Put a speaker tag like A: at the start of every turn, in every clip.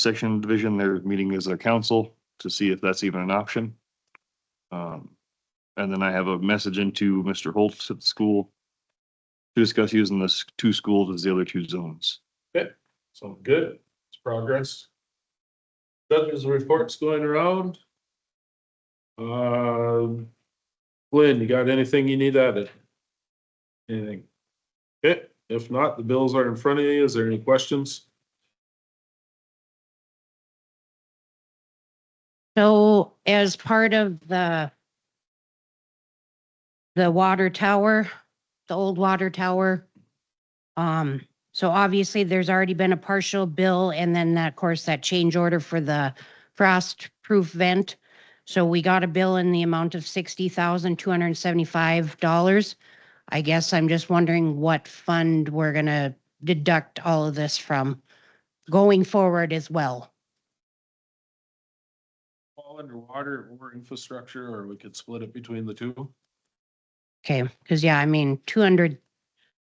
A: section division, they're meeting as their council to see if that's even an option. Um, and then I have a message into Mr. Holtz at the school to discuss using this two schools as the other two zones.
B: So good, it's progress. Judges reports going around. Um, Lynn, you got anything you need added? Anything? Okay, if not, the bills are in front of you. Is there any questions?
C: So as part of the the water tower, the old water tower, um, so obviously there's already been a partial bill and then that, of course, that change order for the frost-proof vent. So we got a bill in the amount of sixty thousand, two hundred and seventy-five dollars. I guess I'm just wondering what fund we're gonna deduct all of this from going forward as well.
B: All underwater or infrastructure, or we could split it between the two.
C: Okay, because yeah, I mean, two hundred,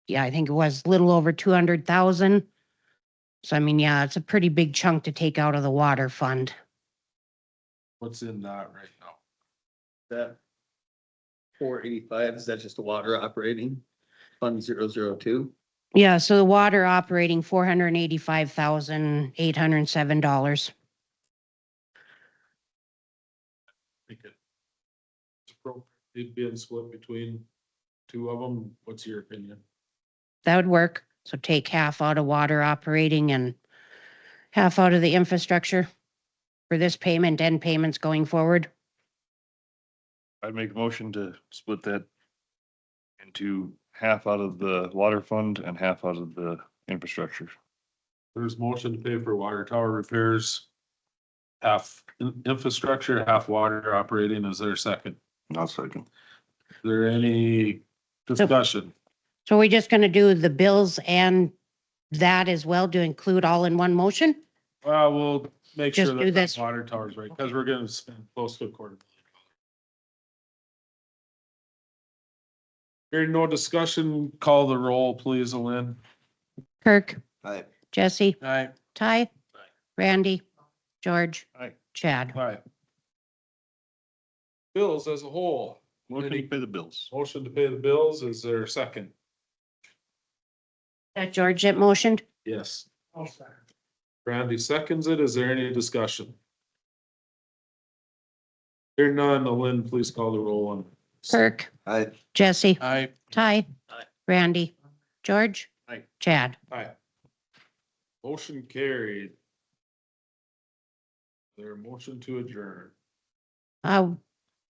C: yeah, I think it was a little over two hundred thousand. So I mean, yeah, it's a pretty big chunk to take out of the water fund.
B: What's in that right now?
D: That four eighty-five, is that just the water operating? Fund zero zero two?
C: Yeah, so the water operating four hundred and eighty-five thousand, eight hundred and seven dollars.
B: Make it. It's appropriate, it being split between two of them. What's your opinion?
C: That would work. So take half out of water operating and half out of the infrastructure for this payment and payments going forward.
A: I'd make a motion to split that into half out of the water fund and half out of the infrastructure.
B: There's motion to pay for water tower repairs. Half in- infrastructure, half water operating. Is there a second?
A: Not second.
B: Is there any discussion?
C: So we're just gonna do the bills and that as well to include all in one motion?
B: Well, we'll make sure
C: Just do
B: that that
C: this.
B: water tower's right, because we're gonna spend close to a quarter. Hearing no discussion, call the roll, please, Lynn.
C: Kirk,
D: Aye.
C: Jesse?
B: Aye.
C: Ty? Randy? George?
A: Aye.
C: Chad?
B: Aye. Bills as a whole,
A: Motion to pay the bills.
B: motion to pay the bills, is there a second?
C: That George that motioned?
B: Yes. Randy seconds it. Is there any discussion? Hearing none, Lynn, please call the roll on.
C: Kirk?
D: Aye.
C: Jesse?
B: Aye.
C: Ty?
D: Aye.
C: Randy? George?
A: Aye.
C: Chad?
B: Aye. Motion carried. Their motion to adjourn.
C: Uh,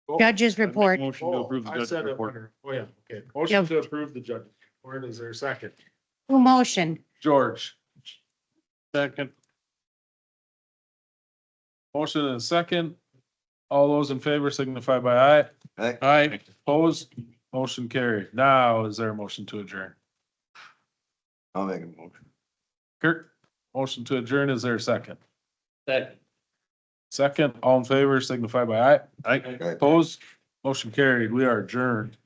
B: Oh,
C: judge's
A: I'd make a
C: report.
A: Motion to approve the
B: Oh, I
A: judge's
B: said it
A: report.
B: under- Oh, yeah, okay. Motion to approve the judge's report. Is there a second?
C: Who motioned?
B: George. Second. Motion and a second. All those in favor signify by aye.
D: Aye.
B: Aye, opposed, motion carried. Now is there a motion to adjourn?
D: I'll make a motion.
B: Kirk, motion to adjourn, is there a second?
D: Second.
B: Second, all in favor signify by aye.
A: Aye.
D: Aye.
B: Opposed, motion carried. We are adjourned.